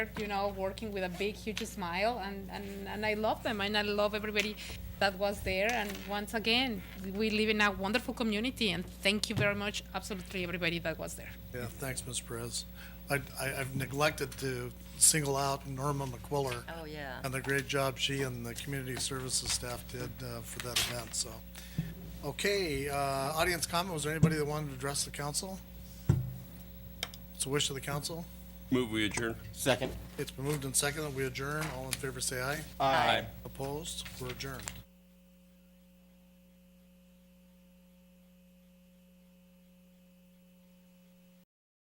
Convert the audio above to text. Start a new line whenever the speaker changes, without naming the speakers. you know, working with a big, huge smile, and, and, and I love them, and I love everybody that was there. And once again, we live in a wonderful community, and thank you very much, absolutely everybody that was there.
Yeah, thanks, Ms. Perez. I, I- I've neglected to single out Norma McQuiller.
Oh, yeah.
And the great job she and the community services staff did uh, for that event, so. Okay, uh, audience comment, was there anybody that wanted to address the council? It's a wish of the council.
Move we adjourn.
Second.
It's been moved and seconded, we adjourn. All in favor, say aye.
Aye.
Opposed, we're adjourned.